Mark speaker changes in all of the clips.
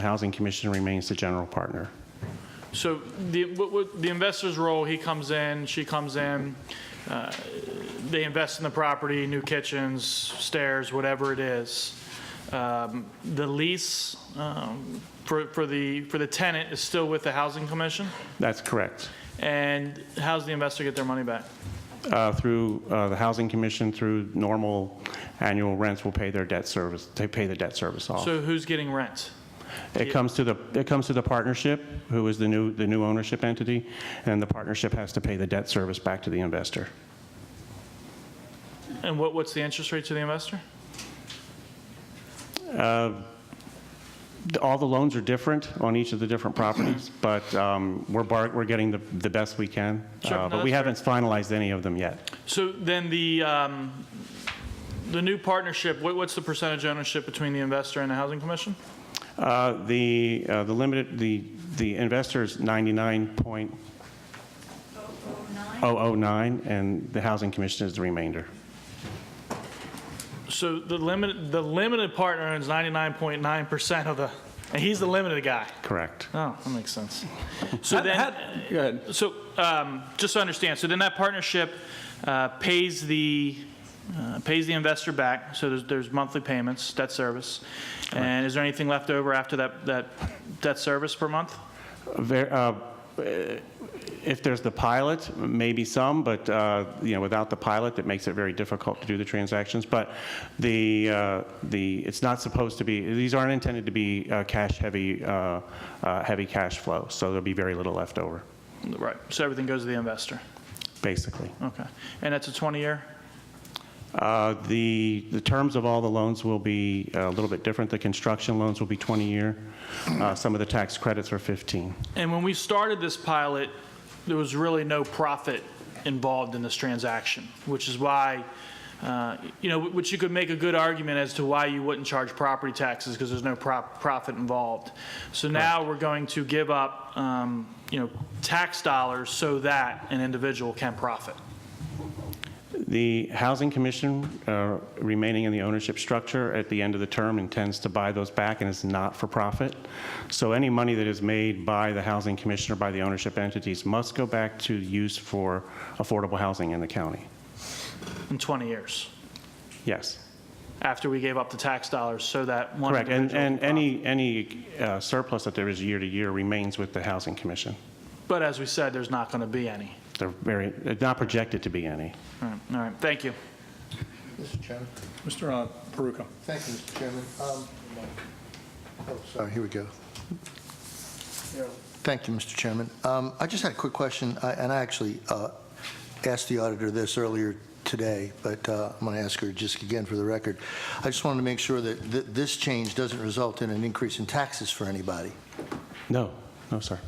Speaker 1: The Housing Commission remains the general partner.
Speaker 2: So the, what- what- the investor's role, he comes in, she comes in, uh, they invest in the property, new kitchens, stairs, whatever it is. Um, The lease um, for, for the, for the tenant is still with the housing commission?
Speaker 1: That's correct.
Speaker 2: And how's the investor get their money back?
Speaker 1: Uh, Through uh, the Housing Commission, through normal annual rents, will pay their debt service, they pay the debt service off.
Speaker 2: So who's getting rent?
Speaker 1: It comes to the, it comes to the partnership, who is the new, the new ownership entity, and the partnership has to pay the debt service back to the investor.
Speaker 2: And what, what's the interest rate to the investor?
Speaker 1: The- All the loans are different on each of the different properties, but um, we're, bar- we're getting the, the best we can.
Speaker 2: Sure,
Speaker 1: Uh,
Speaker 2: no,
Speaker 1: But we haven't
Speaker 2: that's
Speaker 1: finalized any of them yet.
Speaker 2: So then the, um, the new partnership, what, what's the percentage ownership between the investor and the housing commission?
Speaker 1: Uh, The, uh, the limited, the, the investor's 99.009, and the Housing Commission is the remainder.
Speaker 2: So the limited, the limited partner owns 99.9% of the, and he's the limited guy.
Speaker 1: Correct.
Speaker 2: Oh, that makes sense. So
Speaker 3: How-
Speaker 2: then,
Speaker 3: how- Go ahead.
Speaker 2: so, um, just to understand, so then that partnership uh, pays the, uh, pays the investor back, so there's, there's monthly payments, debt service. And is there anything left over after that, that debt service per month?
Speaker 1: Ver- uh, If there's the pilot, maybe some, but, uh, you know, without the pilot, it makes it very difficult to do the transactions. But the, uh, the, it's not supposed to be, these aren't intended to be uh, cash-heavy, uh, uh, heavy cash flow, so there'll be very little left over,
Speaker 2: Right, so everything goes to the investor,
Speaker 1: basically.
Speaker 2: okay. And that's a 20-year?
Speaker 1: Uh, The, the terms of all the loans will be uh, a little bit different. The construction loans will be 20-year. Some of the tax credits are 15.
Speaker 2: And when we started this pilot, there was really no profit involved in this transaction, which is why, uh, you know, which you could make a good argument as to why you wouldn't charge property taxes because there's no prop- profit involved. So now we're going to give up, um, you know, tax dollars so that an individual can profit.
Speaker 1: The Housing Commission, uh, remaining in the ownership structure at the end of the term, intends to buy those back and is not for profit. So any money that is made by the Housing Commission or by the ownership entities must go back to use for affordable housing in the county.
Speaker 2: In 20 years,
Speaker 1: Yes,
Speaker 2: after we gave up the tax dollars so that one
Speaker 1: correct. And,
Speaker 2: individual
Speaker 1: and
Speaker 2: can profit.
Speaker 1: any, any uh, surplus that there is year to year remains with the Housing Commission.
Speaker 2: But as we said, there's not going to be any.
Speaker 1: They're very, not projected to be any.
Speaker 2: All right, all right, thank you.
Speaker 4: Mr. Chairman,
Speaker 3: Mr. uh, Peruka.
Speaker 4: thank you, Mr. Chairman. Um, Oh, sorry, here we go. Thank you, Mr. Chairman. Um, I just had a quick question, I- and I actually uh, asked the auditor this earlier today, but uh, I'm going to ask her just again for the record. I just wanted to make sure that th- this change doesn't result in an increase in taxes for anybody.
Speaker 1: No, no, sir.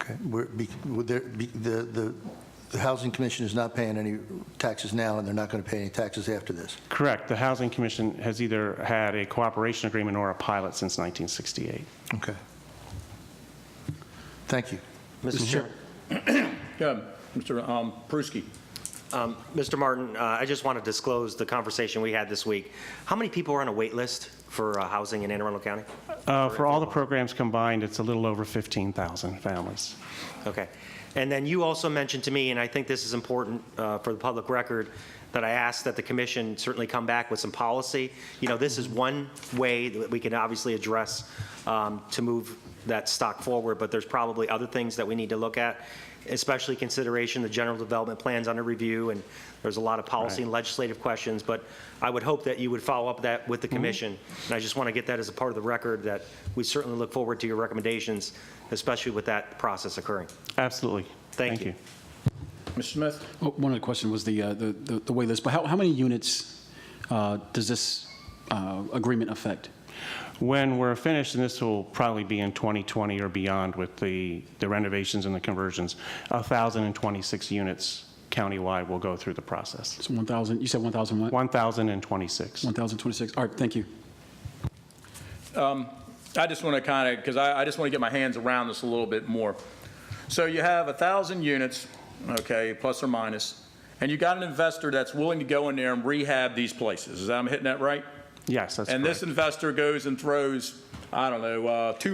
Speaker 4: Okay, We're- be- would there be- the the- the Housing Commission is not paying any taxes now, and they're not going to pay any taxes after this?
Speaker 1: Correct. The Housing Commission has either had a cooperation agreement or a pilot since 1968.
Speaker 4: Okay. Thank you.
Speaker 5: Mr. Chair.
Speaker 3: Go ahead. Mr. um, Pruski.
Speaker 5: Um, Mr. Martin, uh, I just want to disclose the conversation we had this week. How many people are on a wait list for uh, housing in Anne Arundel County?
Speaker 1: Uh, For all the programs combined, it's a little over 15,000 families.
Speaker 5: Okay. And then you also mentioned to me, and I think this is important uh, for the public record, that I asked that the commission certainly come back with some policy. You know, this is one way that we can obviously address um, to move that stock forward, but there's probably other things that we need to look at, especially consideration the general development plans under review, and there's a lot of policy and legislative questions, but I would hope that you would follow up that with the commission. And I just want to get that as a part of the record, that we certainly look forward to your recommendations, especially with that process occurring.
Speaker 1: Absolutely.
Speaker 5: Thank you.
Speaker 3: Mr. Smith?
Speaker 6: Oh, One other question was the, uh, the, the- the wait list, but how, how many units uh, does this uh, agreement affect?
Speaker 1: When we're finished, and this will probably be in 2020 or beyond with the the renovations and the conversions, 1,026 units countywide will go through the process.
Speaker 6: So 1,000, you said 1,000 what?
Speaker 1: 1,026.
Speaker 6: 1,026, all right, thank you.
Speaker 3: I just want to kind of, because I, I just want to get my hands around this a little bit more. So you have a 1,000 units, okay, plus or minus, and you got an investor that's willing to go in there and rehab these places. Is that, I'm hitting that right?
Speaker 1: Yes, that's correct.
Speaker 3: And this investor goes and throws, I don't know, uh, $2